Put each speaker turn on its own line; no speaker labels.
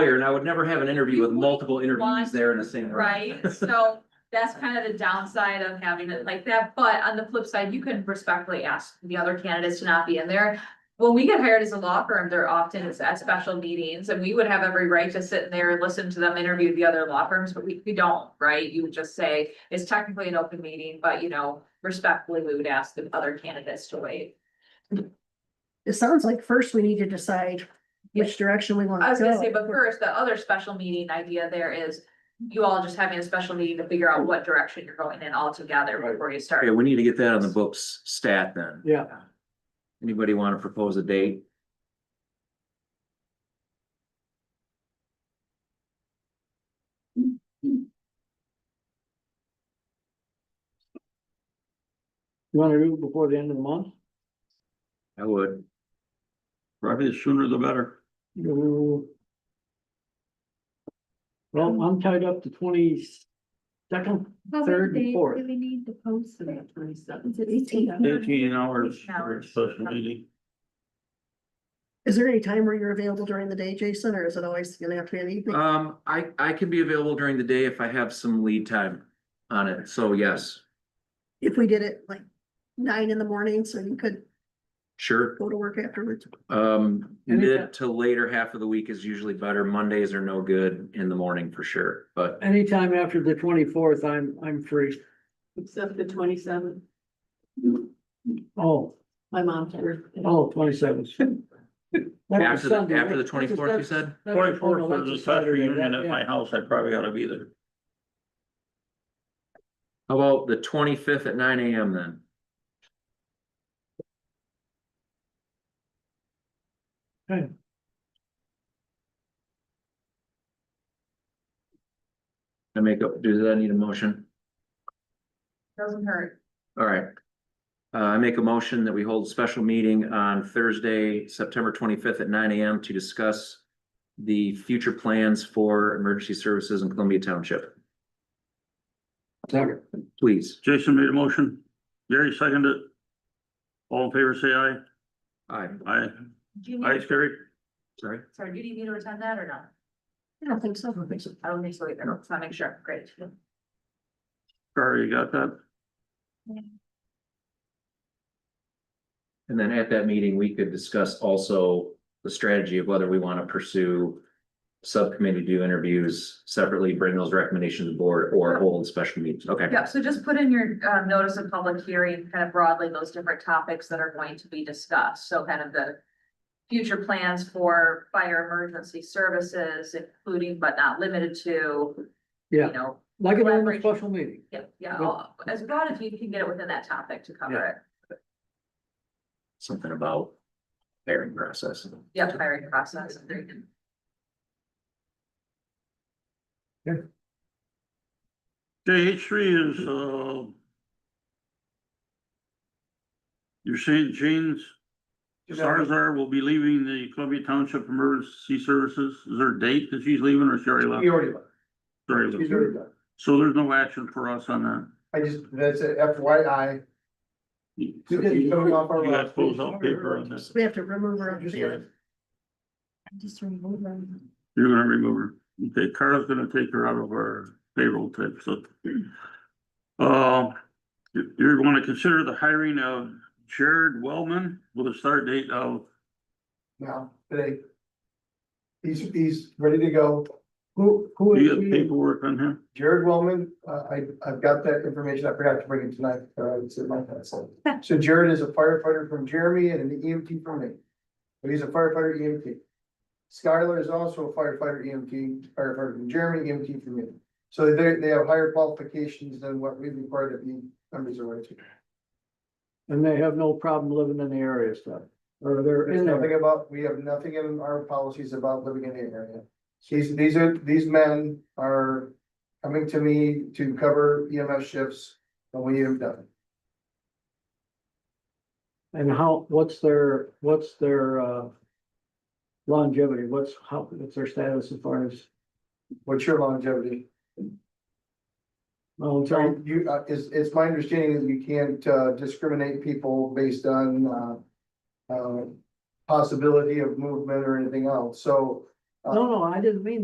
lawyer and I would never have an interview with multiple interviews
Want-
there in the same. room.
Right, so that's kind of the downside of having it like that, but on the flip side, you can respectfully ask the other candidates to not be in there. When we get hired as a law firm, there often is at special meetings and we would have every right to sit in there and listen to them interview the other law firms, but we, we don't, right? You would just say, it's technically an open meeting, but you know, respectfully, we would ask the other candidates to wait.
It sounds like first we need to decide which direction we want
I
to
was
go.
gonna say, but first, the other special meeting idea there is you all just having a special meeting to figure out what direction you're going in altogether before you start.
Okay, we need to get that on the books stat then.
Yeah.
Anybody want to propose a date?
You wanna do it before the end of the month?
I would.
Probably the sooner the better.
You- Well, I'm tied up to twenty second, third and fourth.
we need to post for that twenty seventh?
Eighteen hours for a special meeting.
Is there any time where you're available during the day, Jason, or is it always gonna have to be an evening?
Um, I, I can be available during the day if I have some lead time on it. So yes,
If we did it like nine in the morning, so you could
sure.
go to work afterwards.
Um,
And if
mid to later half of the week is usually better. Mondays are no good in the morning for sure, but
Anytime after the twenty fourth, I'm, I'm free.
Except the twenty seventh,
Oh,
my mom's birthday.
oh, twenty seventh.
after the, after the twenty-fourth, you said?
Twenty fourth is a special union at my house, I probably ought to be there.
How about the twenty-fifth at nine AM then? I make up, does that need a motion?
Doesn't hurt.
All right. Uh, I make a motion that we hold a special meeting on Thursday, September twenty-fifth at nine AM to discuss the future plans for emergency services in Columbia Township.
Second.
Please.
Jason made a motion, Gary seconded it. All in favor, say aye.
Aye,
Aye,
Do you
aye,
need,
Gary.
sorry.
sorry, do you need me to attend that or not?
I don't think so. I don't think
I don't think so either, let's not make sure, great.
Sorry, you got that?
And then at that meeting, we could discuss also the strategy of whether we want to pursue subcommittee do interviews separately, bring those recommendations to the board or hold special meetings. Okay.
Yeah, so just put in your uh notice of public hearing, kind of broadly those different topics that are going to be discussed, so kind of the. Future plans for fire emergency services, including but not limited to, you
Yeah,
know.
like a normal special meeting.
Yeah, yeah, I'll- as broad as you can get it within that topic to cover it,
Something about hiring process.
yeah, hiring process. there you go.
Okay, H three is, uh. You're saying James Sarzar will be leaving the Columbia Township Emergency Services. Is there a date that she's leaving or she already left?
He already left.
Sorry,
He's already done.
so there's no action for us on that.
I just, that's a FYI.
You
So he's coming off our
got
list.
those on paper on this.
We have to remove her. off the
Yeah.
ballot. Just remove her.
You're gonna remove her. Okay, Carla's gonna take her out of our payroll type, so. Uh, you, you're gonna consider the hiring of Jared Wellman with a start date of,
Now, today. He's, he's ready to go. Who, who
do
is
you have
he?
paperwork on him?
Jared Wellman, uh, I, I've got that information, I forgot to bring it tonight, uh, it's in my pencil. So Jared is a firefighter from Jeremy and an EMT from me. But he's a firefighter EMT. Skylar is also a firefighter EMT, firefighter from Jeremy, EMT from me. So they, they have higher qualifications than what we require to be members of our team.
And they have no problem living in the area stuff, or they're
There's
in there.
nothing about, we have nothing in our policies about living in the area. These, these are, these men are coming to me to cover EMS shifts when we need them done.
And how, what's their, what's their, uh, longevity? What's, how, what's their status as far as,
What's your longevity?
well,
So
until,
you, uh, is, it's my understanding that you can't uh, discriminate people based on, uh, uh, possibility of movement or anything else. So Uh,
No, no, I didn't mean